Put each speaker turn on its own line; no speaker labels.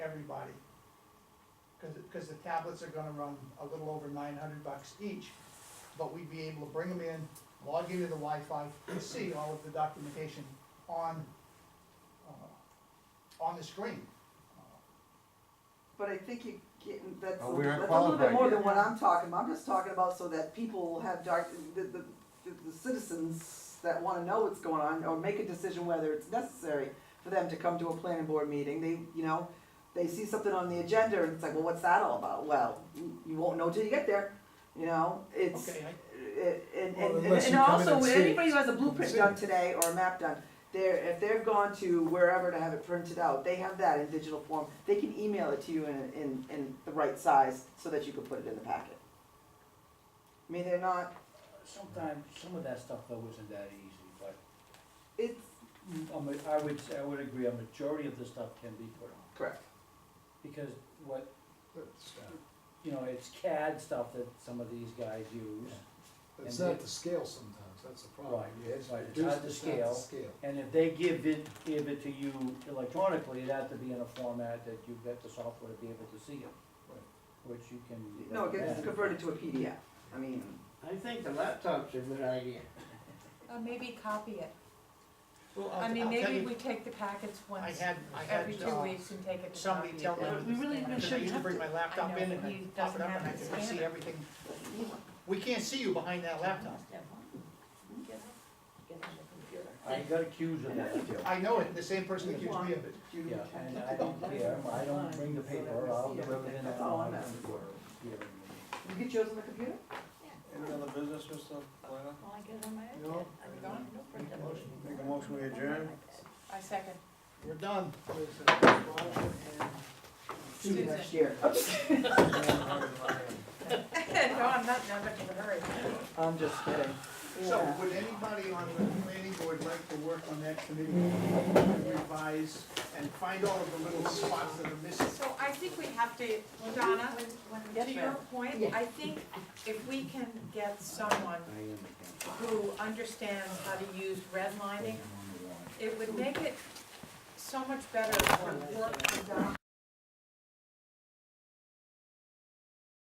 everybody. Cause, it- cause the tablets are gonna run a little over nine hundred bucks each, but we'd be able to bring them in, log into the Wi-Fi, and see all of the documentation on, uh, on the screen.
But I think you getting, that's, a
Well, Oh,
little-
we aren't
that's a little bit
qualified
more than
yet.
what I'm talking about, I'm just talking about so that people have dark, the, the, the- the citizens that wanna know what's going on, or make a decision whether it's necessary for them to come to a planning board meeting, they, you know, they see something on the agenda, and it's like, well, what's that all about? Well, you you won't know till you get there, you know, it's,
Okay, I,
it- and,
Well,
and,
unless
and
you come in
also,
and
when
see it.
anybody who has a blueprint
See it.
done today or a map done, they're, if they've gone to wherever to have it printed out, they have that in digital form, they can email it to you in, in, in the right size so that you can put it in the packet. I mean, they're not,
Sometimes, some of that stuff though isn't that easy, but
it's,
a ma- I would, say- I would agree, a majority of the stuff can be put on.
correct,
Because what,
It's,
you know, it's CAD stuff that some of these guys use.
it's
And
not
it-
the scale sometimes, that's the problem.
Right,
You have to
right, it's
reduce
not the
the
scale. And if they give it, give it to you electronically, it'd have to be in a format that you've got the software to be able to see it.
Right.
Which you can.
no, it gets
Yeah.
converted to a PDF, I mean,
I think the laptop's a good idea.
Uh, maybe copy it.
well, I'll,
I
I'll
mean,
tell
maybe
you,
we take the packets
I
once,
had, I had,
every two
uh,
weeks and take it to
somebody
copy.
tell
That
them-
would be
We really- we
better.
cause I
shouldn't
used to
have
bring
to.
my laptop in and I'd pop it up and I could see everything. We can't see you behind that laptop.
I got accused of that.
I know it, the same person accused me of it.
you
Yeah,
can.
and I don't care, I don't bring the paper, I'll do everything
That's all I'm
online.
asking for. You get yours on the computer?
Any other business, Mr. Planner?
Well, I get it on my
No.
iPad. I'm gone. No print
Make a
on my
motion.
Make a motion, we adjourn?
iPad. I second.
We're done.
See you
Susan.
next year. I'm just kidding.
No, I'm not, I'm not in a hurry.
I'm just kidding.
So
Yeah.
would anybody on the planning board like to work on that committee, and revise, and find all of the little spots that are missing?
So I think we have to, Donna,
Yes,
to your
ma'am.
point,
Yeah.
I think if we can get someone who understands how to use redlining, it would make it so much better for work for Donna